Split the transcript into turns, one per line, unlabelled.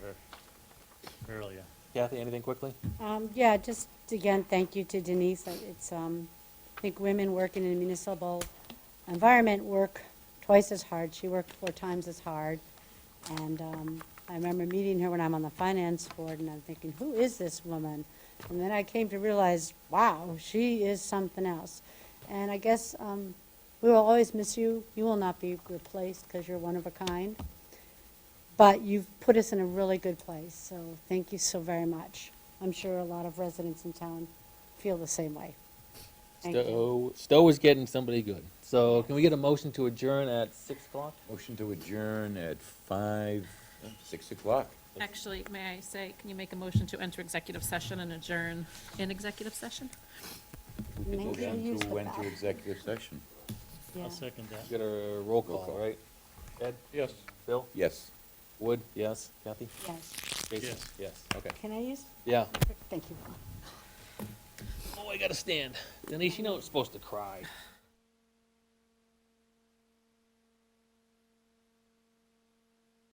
earlier.
Kathy, anything quickly?
Um, yeah, just again, thank you to Denise. Uh, It's, um, I think women working in a municipal environment work twice as hard. She worked four times as hard. And, um, I remember meeting her when I'm on the finance board and I'm thinking, who is this woman? And then I came to realize, wow, she is something else. And I guess, um, we will always miss you. You will not be replaced because you're one of a kind. But you've put us in a really good place, so thank you so very much. I'm sure a lot of residents in town feel the same way. Thank you.
Stowe, Stowe is getting somebody good. So can we get a motion to adjourn at six o'clock?
Motion to adjourn at five, six o'clock.
Actually, may I say, can you make a motion to enter executive session and adjourn in executive session?
Make sure you
Motion
use
to
the
went to
bath.
executive session.
Yeah.
I'll second that.
Get a roll
Roll
call,
call.
right? Ed?
Yes.
Bill?
Yes,
Wood? Yes. Kathy?
Yes.
Jason?
Yes.
Yes.
okay.
Can I use?
Yeah.
Thank you.
Oh, I gotta stand. Denise, you know it's supposed to cry.